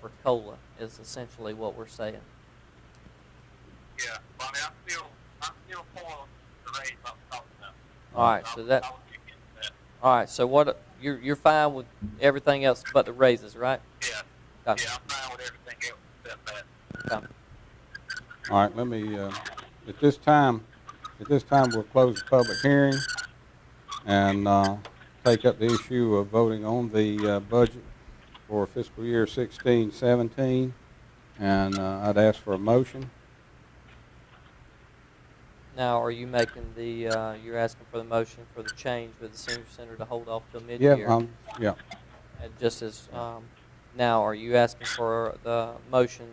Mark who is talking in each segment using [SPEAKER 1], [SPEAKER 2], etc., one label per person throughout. [SPEAKER 1] for cola is essentially what we're saying.
[SPEAKER 2] Yeah, but I mean, I'm still, I'm still for the raise up top of that.
[SPEAKER 1] All right, so that
[SPEAKER 2] I would be against that.
[SPEAKER 1] all right. So what you're you're fine with everything else but the raises, right?
[SPEAKER 2] Yeah,
[SPEAKER 1] Gotcha.
[SPEAKER 2] yeah, I'm fine with everything else except that.
[SPEAKER 1] Copy.
[SPEAKER 3] All right, let me, uh, at this time, at this time, we'll close the public hearing and uh, take up the issue of voting on the uh, budget for fiscal year 16, 17. And uh, I'd ask for a motion.
[SPEAKER 1] Now, are you making the uh, you're asking for the motion for the change with the senior center to hold off till mid
[SPEAKER 3] Yeah,
[SPEAKER 1] year?
[SPEAKER 3] um, yeah,
[SPEAKER 1] And just as, um, now, are you asking for the motion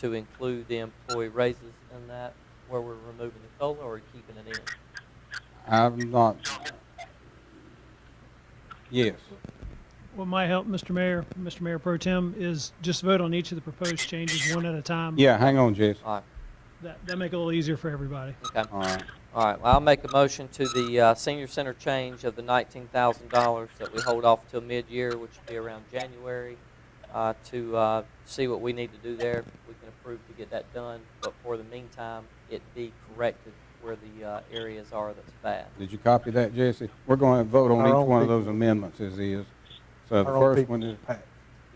[SPEAKER 1] to include the employee raises in that, where we're removing the COLA, or keeping it in?
[SPEAKER 3] I'm not, yes.
[SPEAKER 4] What might help, Mr. Mayor, Mr. Mayor Pro Tem, is just vote on each of the proposed changes one at a time.
[SPEAKER 3] Yeah, hang on, Jesse.
[SPEAKER 1] All right,
[SPEAKER 4] That, that make it a little easier for everybody.
[SPEAKER 1] okay.
[SPEAKER 3] All right,
[SPEAKER 1] All right, well, I'll make a motion to the, uh, senior center change of the nineteen thousand dollars that we hold off till mid-year, which will be around January, uh, to, uh, see what we need to do there. We can approve to get that done, but for the meantime, it be corrected where the, uh, areas are that's bad.
[SPEAKER 3] did you copy that, Jesse? We're going to vote on
[SPEAKER 5] Our
[SPEAKER 3] each
[SPEAKER 5] own
[SPEAKER 3] one of
[SPEAKER 5] people.
[SPEAKER 3] those amendments as is. So the
[SPEAKER 5] Our own
[SPEAKER 3] first
[SPEAKER 5] people
[SPEAKER 3] one is,
[SPEAKER 5] pack.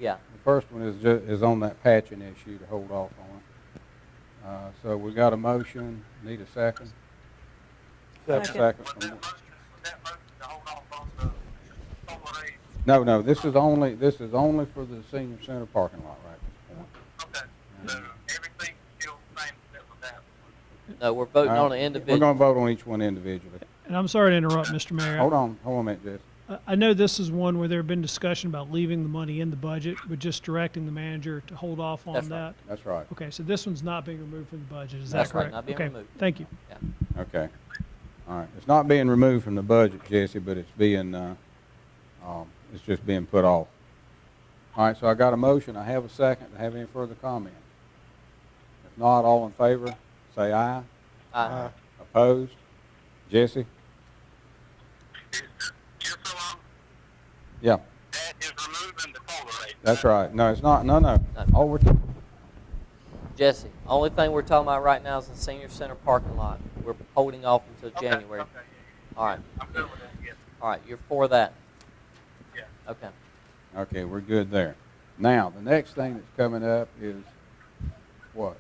[SPEAKER 1] Yeah,
[SPEAKER 3] The first one is ju, is on that patching issue to hold off on it. Uh, so we got a motion, need a second?
[SPEAKER 5] Second.
[SPEAKER 3] Second.
[SPEAKER 2] Was that motion, was that motion to hold off on the, on the raise?
[SPEAKER 3] No, no, this is only, this is only for the senior center parking lot right at this point.
[SPEAKER 2] Okay, so
[SPEAKER 1] Mm-hmm.
[SPEAKER 2] everything's still the same except for that one.
[SPEAKER 1] no, we're voting on an
[SPEAKER 3] Alright,
[SPEAKER 1] individual.
[SPEAKER 3] We're gonna vote on each one individually.
[SPEAKER 4] And I'm sorry to interrupt, Mr. Mayor.
[SPEAKER 3] Hold on, hold on a minute, Jesse.
[SPEAKER 4] I- I know this is one where there have been discussion about leaving the money in the budget, but just directing the manager to hold off
[SPEAKER 1] That's
[SPEAKER 4] on
[SPEAKER 1] right.
[SPEAKER 4] that.
[SPEAKER 3] That's right,
[SPEAKER 4] Okay, so this one's not being removed from the budget, is that
[SPEAKER 1] That's right,
[SPEAKER 4] correct?
[SPEAKER 1] not being
[SPEAKER 4] Okay,
[SPEAKER 1] removed.
[SPEAKER 4] thank you.
[SPEAKER 3] okay. All right, it's not being removed from the budget, Jesse, but it's being, uh, um, it's just being put off. All right, so I got a motion, I have a second, I have any further comment? If not, all in favor, say aye. Uh-huh.
[SPEAKER 1] Aye.
[SPEAKER 3] Opposed? Jesse?
[SPEAKER 2] Just so I'm,
[SPEAKER 3] Yeah,
[SPEAKER 2] that is removing the COLA raise.
[SPEAKER 3] that's right. No, it's not, no, no.
[SPEAKER 1] No.
[SPEAKER 3] All we're,
[SPEAKER 1] Jesse, only thing we're talking about right now is the senior center parking lot. We're holding off until
[SPEAKER 2] Okay,
[SPEAKER 1] January.
[SPEAKER 2] okay, yeah,
[SPEAKER 1] All right,
[SPEAKER 2] yeah. I'm good with that, yes,
[SPEAKER 1] all right, you're for that?
[SPEAKER 2] yeah.
[SPEAKER 1] Okay.
[SPEAKER 3] okay, we're good there. Now, the next thing that's coming up is what?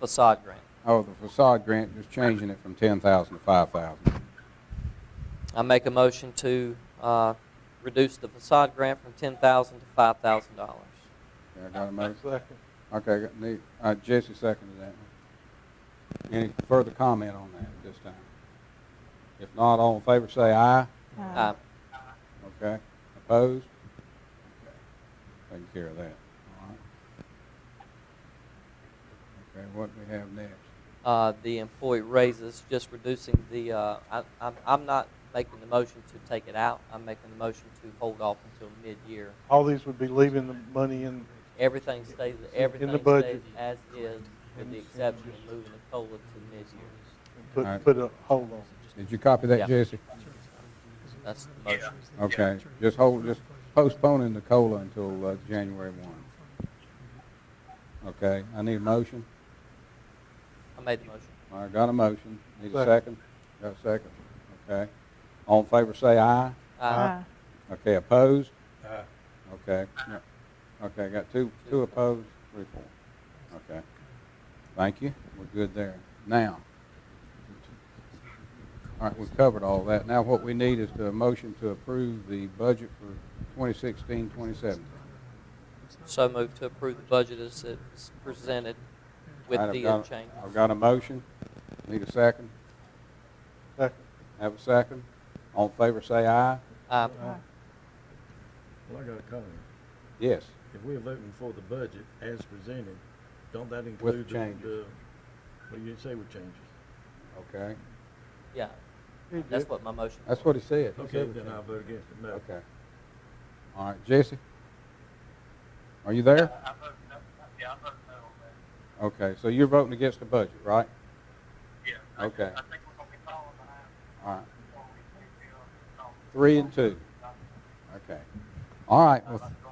[SPEAKER 1] Facade grant.
[SPEAKER 3] Oh, the facade grant, just changing it from ten thousand to five thousand.
[SPEAKER 1] I make a motion to, uh, reduce the facade grant from ten thousand to five thousand dollars.
[SPEAKER 3] I got a motion?
[SPEAKER 5] Second.
[SPEAKER 3] Okay, I got- need, uh, Jesse seconded that one. Any further comment on that at this time? If not, all in favor, say aye.
[SPEAKER 1] Uh,
[SPEAKER 3] Okay. Opposed? Okay. Taking care of that. All right. Okay, what we have next?
[SPEAKER 1] uh, the employee raises, just reducing the, uh, I, I'm, I'm not making the motion to take it out. I'm making the motion to hold off until mid-year.
[SPEAKER 5] All these would be leaving the money in,
[SPEAKER 1] Everything stays, everything stays
[SPEAKER 5] budget.
[SPEAKER 1] as is, with the exception of moving the COLA to mid-year.
[SPEAKER 5] and
[SPEAKER 3] All right.
[SPEAKER 5] put, put a hold on.
[SPEAKER 3] Did you copy
[SPEAKER 1] Yeah.
[SPEAKER 3] that, Jesse?
[SPEAKER 1] That's the motion.
[SPEAKER 3] Okay, just hold, just postponing the COLA until, uh, January one. Okay, I need a motion.
[SPEAKER 1] I made the motion.
[SPEAKER 3] I got a motion. Need a second?
[SPEAKER 5] Second.
[SPEAKER 3] Got a second? Okay. All in favor, say aye.
[SPEAKER 1] Uh,
[SPEAKER 3] Okay, opposed? Okay. No. Okay, got two, two opposed, three for. Okay. Thank you. We're good there. Now. All right, we've covered all that. Now what we need is the motion to approve the budget for 2016, 2017.
[SPEAKER 1] So moved to approve the budget as it's presented with
[SPEAKER 3] All right, I've
[SPEAKER 1] the
[SPEAKER 3] got a-
[SPEAKER 1] change.
[SPEAKER 3] I've got a motion. Need a second?
[SPEAKER 5] Second.
[SPEAKER 3] Have a second? All in favor, say aye.
[SPEAKER 1] Uh,
[SPEAKER 6] Well, I got a comment.
[SPEAKER 3] Yes.
[SPEAKER 6] If we're voting for the budget as presented, don't that include the,
[SPEAKER 3] changes.
[SPEAKER 6] the, what you say with changes?
[SPEAKER 3] Okay.
[SPEAKER 1] Yeah,
[SPEAKER 5] He
[SPEAKER 1] that's
[SPEAKER 5] did.
[SPEAKER 1] what my motion.
[SPEAKER 3] That's what he said. He
[SPEAKER 6] Okay,
[SPEAKER 3] said
[SPEAKER 6] then
[SPEAKER 3] it.
[SPEAKER 6] I'll vote against it, no.
[SPEAKER 3] Okay. All right, Jesse? Are you there?
[SPEAKER 2] I vote no, yeah, I vote no on that,
[SPEAKER 3] Okay, so you're voting against the budget, right?
[SPEAKER 2] yeah. I-
[SPEAKER 3] Okay.
[SPEAKER 2] I think we're gonna be falling behind
[SPEAKER 3] All right,
[SPEAKER 2] before we, we feel, um,
[SPEAKER 3] three and two. Okay. All right, well,